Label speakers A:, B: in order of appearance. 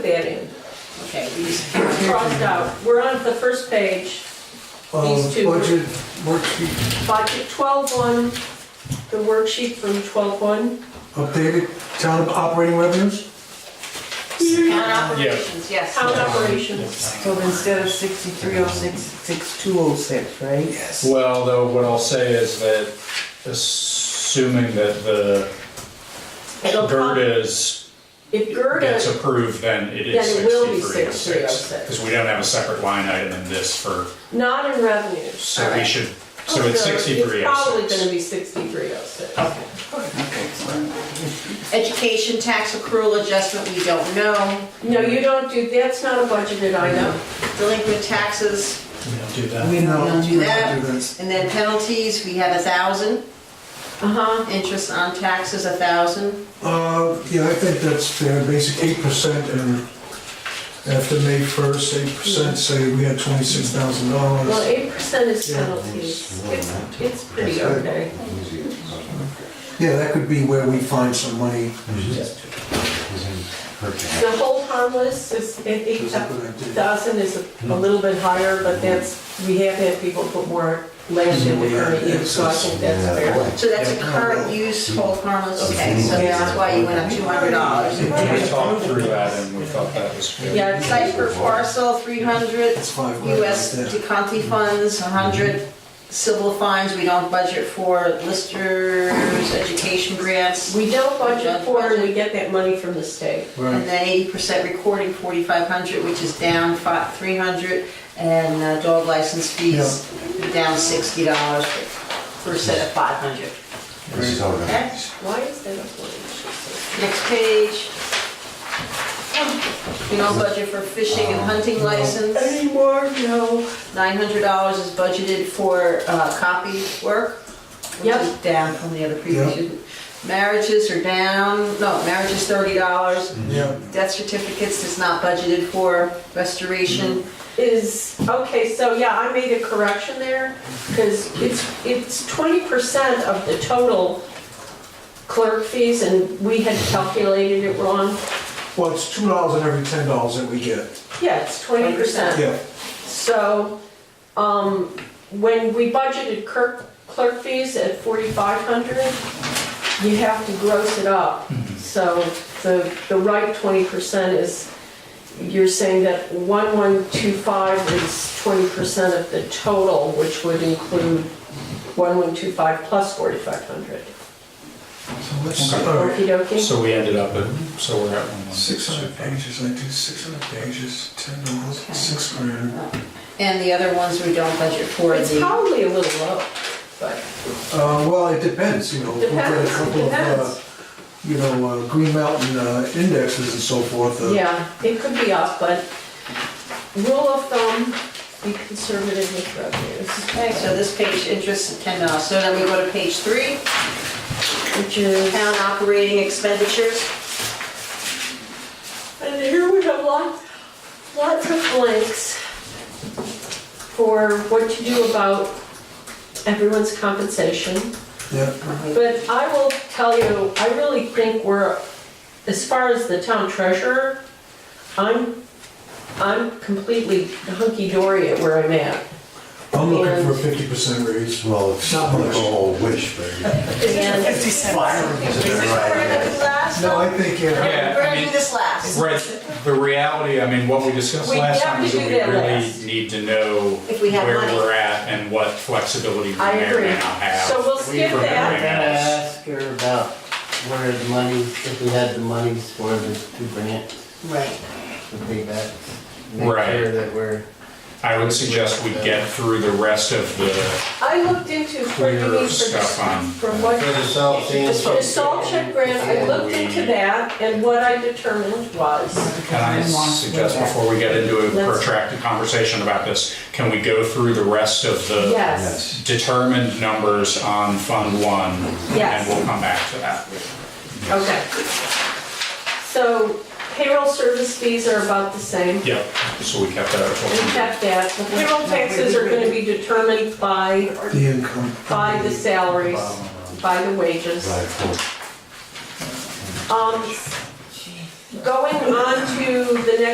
A: that in. Okay, these crossed out. We're on the first page, These two.
B: Um, Budget worksheet
A: budget 12-1, the worksheet from 12-1.
B: updated, town operating revenues?
C: Town operations, yes.
A: Town operations,
D: So instead of sixty-three oh six, six two oh six, right? Yes.
E: Well, though, what I'll say is that assuming that the
A: it'll
E: GERDA
A: come,
E: is,
A: if
E: gets
A: Gerda,
E: approved, then it is oh
A: Then it will be 6306.
E: Because we don't have a separate line item in this for,
A: not in revenues.
E: so we
D: Alright.
E: should, so it's
A: Oh, no, It's
E: sixty-three
A: probably gonna
E: oh six.
A: be 6306.
C: Education tax accrual adjustment, we don't know.
A: No, you don't do, that's not a budgeted item.
C: Delinquent taxes,
E: We don't do that.
D: We don't
B: No,
D: know.
C: do
B: we don't
C: that.
B: do this.
C: and then penalties, we have a thousand.
A: Uh-huh.
C: Interest on taxes, a thousand.
B: Uh, yeah, I think that's fair, basic eight percent and after May first, eight percent, say we had twenty-six thousand
A: Well,
B: dollars.
A: 8% is
B: Yeah.
A: penalties. It's, it's pretty okay.
B: Yeah, that could be where we find some money.
A: The whole harmless is, uh, at
B: That's a good idea. Mm-hmm.
A: 8,000 is a- a little bit higher, but that's, we have had people put more land in the current year, so I think that's fair.
C: So that's a current use, hold harmless, okay, so that's why you went up two hundred dollars.
E: We talked through that and we thought that was good.
A: Yeah, it's like,
C: Site per parcel, three hundred.
B: It's five grand
C: US
B: right there.
C: DeConti funds, hundred. Civil fines, we don't budget for listers, education grants.
A: we don't budget for it, and we get that money from the state.
C: And then eighty percent recording, forty-five hundred, which is down five, three hundred, and uh, dog license fees, down sixty dollars per set of five hundred. Okay,
A: Why is that a forty?
C: next page. We don't budget for fishing and hunting license,
A: Anymore, no.
C: nine hundred dollars is budgeted for uh, copy work, which is
A: Yep.
C: down from the other previous. year. Marriages are down, no, marriage is thirty dollars,
B: Yeah,
C: death certificates is not budgeted for, restoration,
A: Is, okay, so yeah, I made a correction there, because it's, it's twenty percent of the total clerk fees, and we had calculated it wrong.
B: well, it's two dollars and every ten dollars that we get.
A: Yeah, it's twenty percent.
B: Yeah,
A: So, um, when we budgeted clerk, clerk fees at forty-five hundred, you have to gross it up.
B: Mm-hmm.
A: So the, the right twenty percent is, you're saying that one-one-two-five is twenty percent of the total, which would include one-one-two-five plus forty-five hundred.
B: so let's,
E: Okay.
B: all right.
A: Okey dokey?
E: So we ended up at, so we're at one one.
B: Six hundred pages, I do six hundred pages, ten dollars,
C: Okay.
B: six grand.
C: and the other ones we don't budget for.
A: It's
C: the-
A: probably a little low, but
B: Uh, well, it depends, you know. we've got a
A: Depends,
B: couple of, uh,
A: depends.
B: You know, uh, Green Mountain uh, indexes and so forth. uh,
A: Yeah, it could be up, but rule of thumb, be conservative with revenues,
C: Okay, so this page, interest at ten dollars, so then we go to page three,
A: which is.
C: town operating expenditures.
A: And here we have lots, lots of blanks for what to do about everyone's compensation.
B: Yeah,
A: But I will tell you, I really think we're, as far as the town treasurer, I'm, I'm completely hunky-dory at where I'm at.
B: I'm looking for a
A: And-
B: fifty percent raise.
F: Well, it's
B: Not
F: not like
B: much.
F: a whole wish, but
A: And
F: right,
B: No, I think, uh, yeah,
E: Yeah,
C: We're
E: I
C: gonna
E: mean-
C: do this last.
E: Right, the reality, I mean, what we discussed
A: We
E: last
A: have
E: time is
A: to
E: that
A: do
E: we
A: that
E: really
A: last.
E: need to know
C: If we have
E: where
C: money.
E: we're at and what flexibility we
A: I
E: may or
A: agree.
E: may not have.
A: So we'll skip
E: for
A: that.
G: I'm
E: everything
G: gonna
E: else.
G: ask her about where the money, if we had the monies for the two grants,
C: Right.
G: the paybacks. Make
E: Right.
G: sure that we're.
E: I would suggest we get through the rest of the,
A: I looked into for you
E: Clear
A: need for
E: stuff on-
A: from what.
G: For the salt sand
A: The salt- the salt check grant, I
E: Yeah,
A: looked
E: we-
A: into that, and what I determined was,
E: can I suggest before we get into a
A: Let's-
E: protracted conversation about this, can we go through the rest of the
A: yes,
E: determined numbers on Fund One?
A: Yes.
E: And we'll come back to that.
A: okay. So payroll service fees are about the same.
E: Yep, so we kept that at
A: We
E: 14.
A: checked that. The payroll taxes are gonna be determined by,
B: the income.
A: by the salaries, by the wages.
F: right, cool.
A: Um, going on to the next